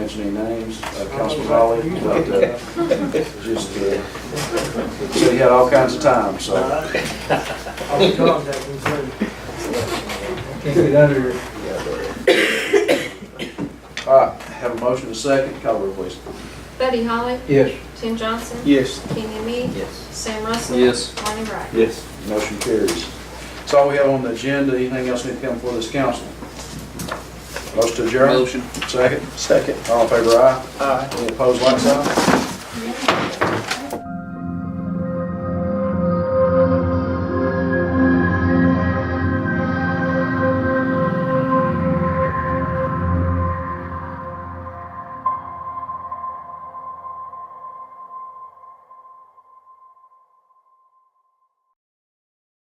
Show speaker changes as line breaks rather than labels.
mention any names, uh, Councilman Raleigh, but uh, just, uh, so he had all kinds of time, so.
I'll be contacting soon.
Can't get under it.
All right, have a motion and a second, call the roll, please.
Buddy Holly,
Yes.
Tim Johnson,
Yes.
Kenny Me,
Yes.
Sam Russell.
Yes.
Lonnie Wright.
Yes.
Motion carries. That's all we have on the agenda, anything else need to come before this council? Motion to adjourn?
Motion.
Second,
Second.
all in favor, aye.
Aye.
Any opposed, like sign?